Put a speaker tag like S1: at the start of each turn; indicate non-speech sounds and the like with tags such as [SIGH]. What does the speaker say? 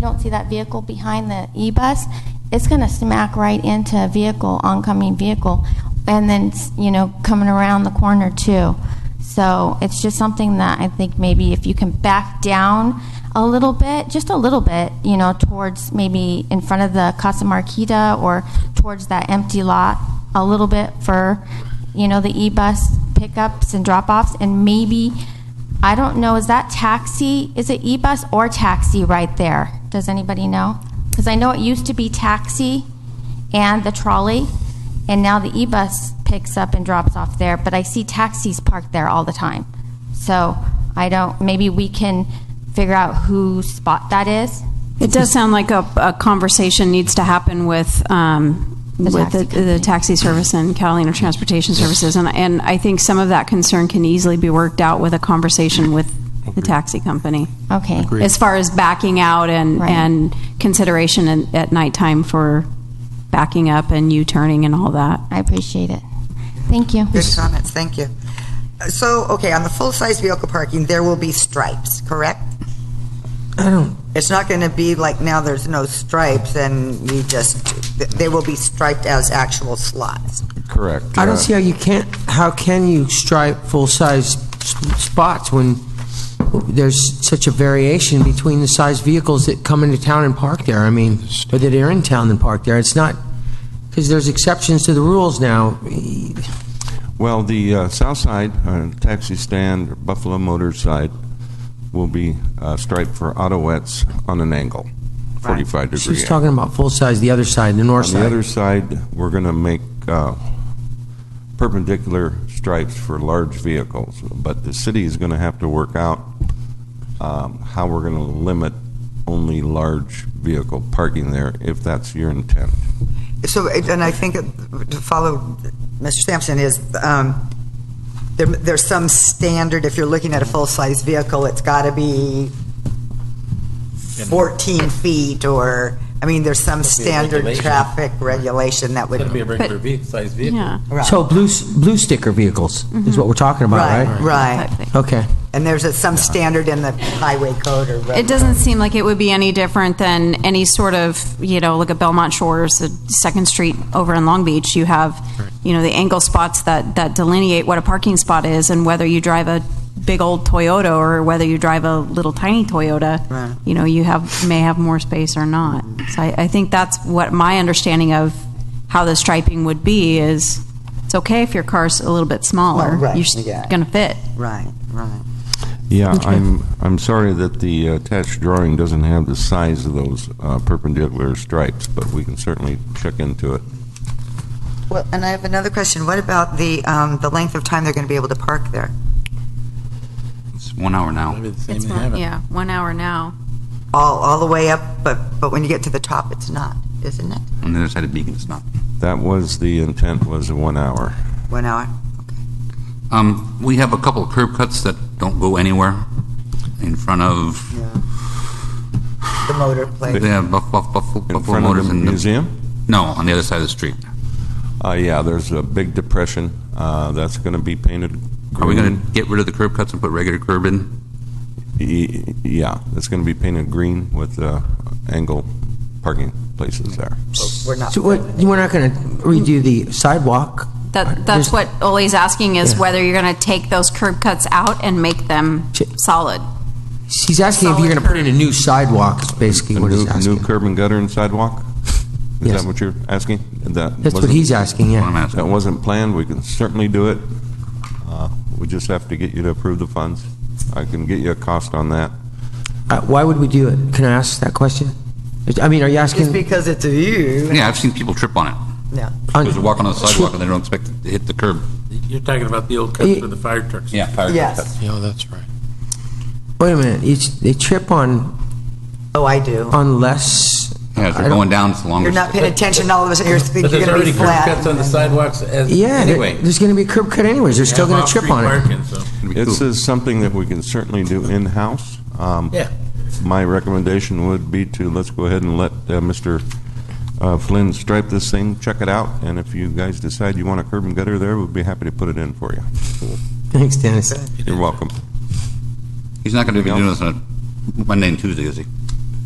S1: don't see that vehicle behind the e-bus, it's going to smack right into a vehicle, oncoming vehicle, and then, s- you know, coming around the corner too. So it's just something that I think maybe if you can back down a little bit, just a little bit, you know, towards maybe in front of the Casa Marquita or towards that empty lot a little bit for, you know, the e-bus pickups and drop-offs, and maybe I don't know, is that taxi, is it e-bus or taxi right there? Does anybody know? Because I know it used to be taxi and the trolley, and now the e-bus picks up and drops off there, but I see taxis parked there all the time. So I don't, maybe we can figure out whose spot that is?
S2: It does sound like a, a conversation needs to happen with, um,
S1: The
S2: with
S1: taxi
S2: the, the
S1: company.
S2: taxi service and Catalina Transportation Services. And, and I think some of that concern can easily be worked out with a conversation with the taxi company.
S1: Okay.
S2: As far as backing out and,
S1: Right.
S2: and consideration in, at nighttime for backing up and U-turning and all that.
S1: I appreciate it. Thank you.
S3: Good comments, thank you. Uh, So, okay, on the full-size vehicle parking, there will be stripes, correct?
S4: I don't,
S3: It's not going to be like now there's no stripes and you just, th- they will be striped as actual slots.
S5: Correct.
S4: I
S5: Uh,
S4: don't see how you can't, how can you stripe full-size s- spots when there's such a variation between the size vehicles that come into town and park there? I mean, or that are in town and park there. It's not, because there's exceptions to the rules now.
S5: Well, the uh, south side, uh, taxi stand, or Buffalo Motors side, will be uh, striped for autoettes on an angle, 45 degree.
S4: She's talking about full-size, the other side, the north
S5: On the other
S4: side.
S5: side, we're going to make uh, perpendicular stripes for large vehicles, but the city is going to have to work out um, how we're going to limit only large vehicle parking there, if that's your intent.
S3: So, it- and I think it- to follow Mr. Sampson is, um, there, there's some standard, if you're looking at a full-size vehicle, it's got to be 14 feet or, I mean, there's some
S6: Must be a
S3: standard
S6: regulation.
S3: traffic regulation that would.
S6: It's gonna be a regular vehicle, size vehicle.
S2: Yeah.
S3: Right.
S4: So blue, s- blue sticker vehicles is what we're talking about,
S3: Right,
S4: right?
S3: right.
S4: Okay.
S3: And there's a- some standard in the highway code or. road
S2: It doesn't seem like it would be any different than any sort of, you know, look at Belmont Shores, the Second Street over in Long Beach. You have, you know, the angle spots that, that delineate what a parking spot is and whether you drive a big old Toyota or whether you drive a little tiny Toyota,
S3: Right.
S2: you know, you have, may have more space or not. So I, I think that's what my understanding of how the striping would be is it's okay if your car's a little bit smaller.
S3: Well, right,
S2: You're s-
S3: yeah.
S2: gonna fit.
S3: Right, right.
S5: Yeah, I'm, I'm sorry that the attached drawing doesn't have the size of those uh, perpendicular stripes, but we can certainly check into it.
S3: Well, and I have another question. What about the, um, the length of time they're going to be able to park there?
S7: It's one hour now.
S6: Maybe the same
S2: It's
S6: in
S2: one,
S6: heaven.
S2: yeah, one hour now.
S3: All, all the way up, but, but when you get to the top, it's not, isn't it?
S7: On the other side of Beacon, it's not.
S5: That was, the intent was a one hour.
S3: One hour?
S7: Um, we have a couple of curb cuts that don't go anywhere in front of,
S3: Yeah. The motor
S7: they
S3: place.
S7: have Buff- Buff- Buff-
S5: In
S7: Buffalo
S5: front of
S7: Motors
S5: the
S7: and the...
S5: museum?
S7: No, on the other side of the street.
S5: Uh, yeah, there's a big depression, uh, that's going to be painted
S7: Are we going
S5: green.
S7: to get rid of the curb cuts and put regular curb in?
S5: Y- Yeah, it's going to be painted green with uh, angle parking places there.
S3: We're not.
S4: So what, we're not going to redo the sidewalk?
S2: That,
S4: There's-
S2: that's what Ole's asking is
S4: Yeah.
S2: whether you're going to take those curb cuts out and make them
S4: Ch-
S2: solid.
S4: He's asking if you're going to put in a new sidewalk, is basically
S5: A
S4: what he's
S5: new-
S4: asking.
S5: New curb and gutter and sidewalk? Is
S4: Yes.
S5: that what you're asking? That
S4: That's what
S5: wasn't-
S4: he's asking,
S7: What I'm
S4: yeah.
S7: asking.
S5: That wasn't planned, we can certainly do it. Uh, We just have to get you to approve the funds. I can get you a cost on that.
S4: Uh, Why would we do it? Can I ask that question? I mean, are you
S3: Just
S4: asking?
S3: because it's you.
S7: Yeah, I've seen people trip on it.
S3: No.
S4: on-
S7: Because they're walking on the sidewalk and they don't expect to hit the curb.
S6: You're talking about the old cuts for the fire trucks.
S7: Yeah, fire curb
S3: Yes.
S7: cuts.
S8: Yeah, that's right.
S4: Wait a minute, you- they trip on,
S3: Oh, I do.
S4: on less,
S7: Yeah, if
S4: I
S7: they're
S4: don't-
S7: going down, it's the
S3: You're
S7: longest.
S3: not paying attention, all of a sudden you're
S6: But
S3: thinking
S6: there's
S3: you're going to
S6: already
S3: be
S6: curb cuts
S3: flat.
S6: on the sidewalks as,
S4: yeah, there-
S6: anyway.
S4: there's going to be curb cut anyways, they're still
S6: Have
S4: going to
S6: off-street
S4: trip on it.
S6: parking, so-
S5: This is something that we can certainly do in-house. Um,
S6: Yeah.
S5: My recommendation would be to, let's go ahead and let uh, Mr. uh, Flynn stripe this thing, check it out, and if you guys decide you want a curb and gutter there, we'd be happy to put it in for you.
S4: [LAUGHS] Thanks, Dennis.
S5: You're welcome.
S7: He's not going to be doing this on a Monday and Tuesday, is he?